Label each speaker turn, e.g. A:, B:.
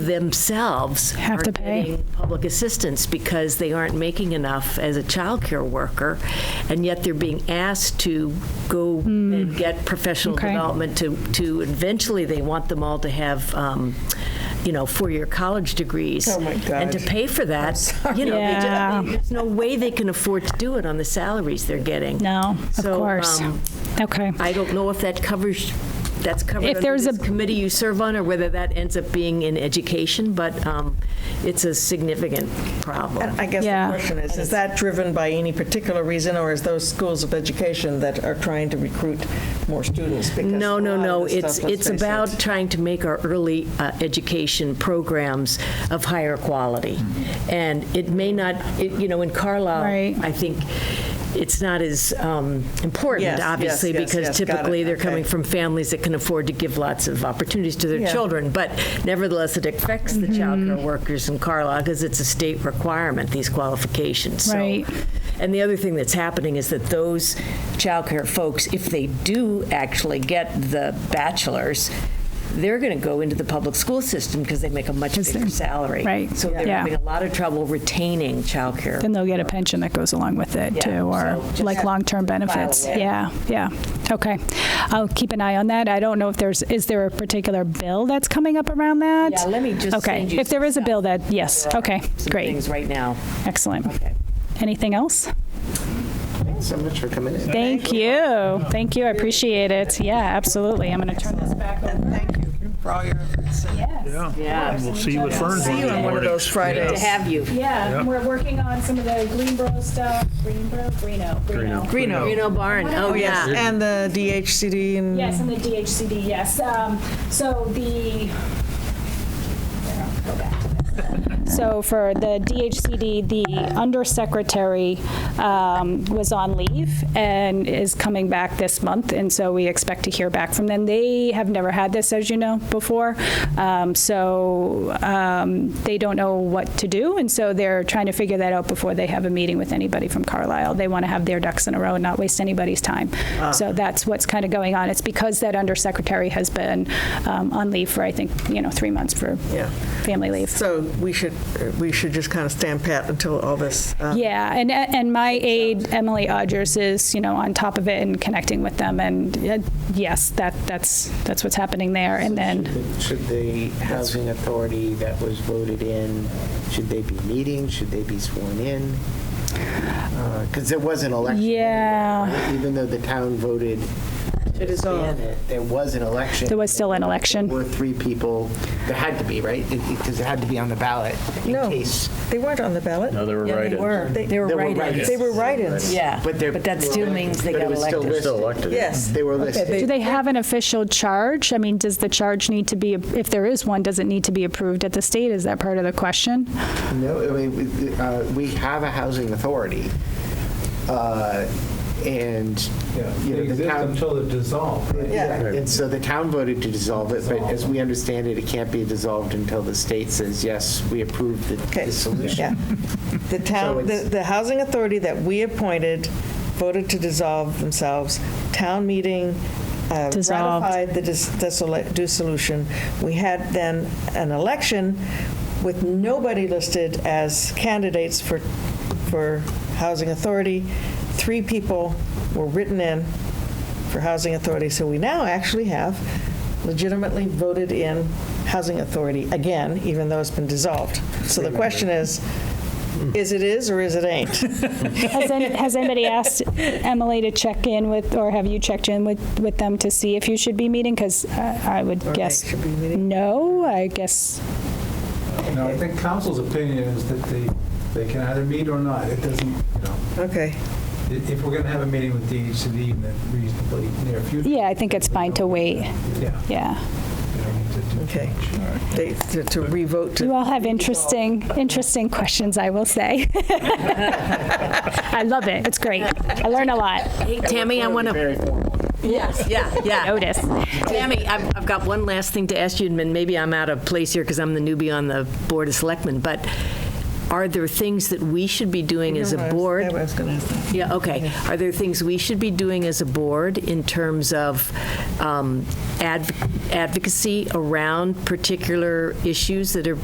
A: themselves
B: Have
A: are
B: to pay.
A: getting public assistance because they aren't making enough as a childcare worker, and yet they're being asked to go and get professional
B: Hmm. Okay.
A: development to, to eventually they want them all to have. Um, you know, four-year college degrees,
C: Oh, my
A: and to
C: God.
A: pay for that, you know, they ju- I mean,
B: Yeah.
A: there's no way they can afford to do it on the salaries they're getting.
B: No, of
A: So,
B: course.
A: um,
B: Okay.
A: I don't know if that covers, that's covered
B: If
A: under
B: there's a-
A: this committee you serve on, or whether that ends up being in education, but um, it's a significant problem.
C: I guess
B: Yeah.
C: the question is, is that driven by any particular reason, or is those schools of education that are trying to recruit more students? Because
A: No,
C: a
A: no,
C: lot of
A: no,
C: this
A: it's,
C: stuff, let's
A: it's
C: face it,
A: about trying to make our early uh, education programs of higher quality. And it may not, it- you know, in
B: Right.
A: Carlisle, I think it's not as um,
C: Yes,
A: important,
C: yes,
A: obviously,
C: yes,
A: because
C: yes, got it,
A: typically they're
C: okay.
A: coming from families that can afford to give lots of opportunities to their
C: Yeah.
A: children. But nevertheless, it affects the
B: Mm-hmm.
A: childcare workers in Carlisle because it's a state requirement, these qualifications. So-
B: Right.
A: and the other thing that's happening is that those childcare folks, if they do actually get the bachelor's, they're going to go into the public school system because they make a much bigger salary.
B: right,
A: So they're
B: yeah.
A: having a lot of trouble retaining childcare.
B: Then they'll get a pension that goes along with it
A: Yeah,
B: too, or
A: so just
B: like long-term benefits. Yeah, yeah. Okay. I'll keep an eye on that. I don't know if there's, is there a particular bill that's coming up around that?
A: Yeah, let me just
B: Okay.
A: send you
B: If there is a bill that, yes. Okay,
A: Some
B: great.
A: Things right now.
B: Excellent.
A: Okay.
B: Anything else?
D: Thanks so much for coming in.
B: Thank you. Thank you. I appreciate it. Yeah, absolutely. I'm going to turn this back over.
E: Thank you for all your efforts.
A: Yeah.
F: We'll see you at Fern's
C: See you on one of those
A: Good to
C: Fridays.
A: have you.
B: Yeah, and we're working on some of the Greenboro stuff. Greenboro, Greeno, Greeno.
C: Greeno.
A: Reno Barn, oh,
C: Yes,
A: yeah.
C: and the DHCD and.
B: Yes, and the DHCD, yes. Um, So the, there, I'll go back to this. so for the DHCD, the undersecretary um, was on leave and is coming back this month, and so we expect to hear back from them. They have never had this, as you know, before, Um, so um, they don't know what to do, and so they're trying to figure that out before they have a meeting with anybody from Carlisle. They want to have their ducks in a row and not waste anybody's time. So that's what's kind of going on. It's because that undersecretary has been um, on leave for, I think, you know, three months for
C: Yeah.
B: family leave.
C: So we should, we should just kind of stand pat until all this. uh,
B: Yeah, and and my aide Emily Odgers is you know on top of it and connecting with them, and uh, yes, that that's that's what's happening there. And then
D: Should the housing authority that was voted in, should they be meeting? Should they be sworn in? Because there was an election. anyway,
B: Yeah.
D: right? Even though the town voted to dissolve it, there was an election.
B: There was still an election.
D: There were three people, there had to be, right? Because it had to be on the ballot in
C: No,
D: case.
C: they weren't on the ballot.
F: No, they were right.
A: They were
D: There were
A: right.
D: write-ins.
C: They were write-ins.
A: Yeah,
D: But they're-
A: but that still means they
D: but it
A: got
D: was still
A: elected.
D: listed.
F: elected.
C: Yes.
D: They were listed.
B: do they have an official charge? I mean, does the charge need to be if there is one? Does it need to be approved at the state? Is that part of the question?
D: No, I mean, we- uh, we have a housing authority, uh, and,
G: Yeah,
D: you
G: they
D: know, the
G: exist
D: town.
G: until they're dissolved. right?
D: Yeah, and so the town voted to dissolve it, but as we understand it, it can't be dissolved until the state says, yes, we approve the
C: Okay.
D: the
C: Yeah.
D: solution.
C: The town, the,
D: it's-
C: the housing authority that we appointed voted to dissolve themselves. Town meeting uh,
B: Dissolved.
C: ratified the dis- dissolu- dissolution. We had then an election with nobody listed as candidates for, for housing authority. Three people were written in for housing authority, so we now actually have legitimately voted in housing authority again, even though it's been dissolved. So the question is, is it is or is it ain't?
B: Has, any, has anybody asked Emily to check in with, or have you checked in with, with them to see if you should be meeting? Because I would
C: they
B: guess
C: should be meeting?
B: no. I guess
G: You know, I think council's opinion is that they, they can either meet or not. It doesn't, you know,
C: Okay.
G: i- if we're going to have a meeting with DHCD in the reasonably near future.
B: Yeah, I think it's fine to wait.
G: Yeah.
B: Yeah.
G: you don't need to do
C: Okay.
G: much.
C: They, to to revote
B: You
C: to,
B: all have interesting, interesting questions, I will say. I love it. It's great. I learn a lot.
A: Hey, Tammy, I want to.
D: Very formal.
A: Yes, yeah, yeah.
B: Notice.
A: Tammy, I've, I've got one last thing to ask you, and maybe I'm out of place here because I'm the newbie on the Board of Selectmen, but Are there things that we should be doing as a board?
C: I was going to ask that.
A: Yeah, okay. Are there things we should be doing as a board in terms of um, adv- advocacy around particular issues that are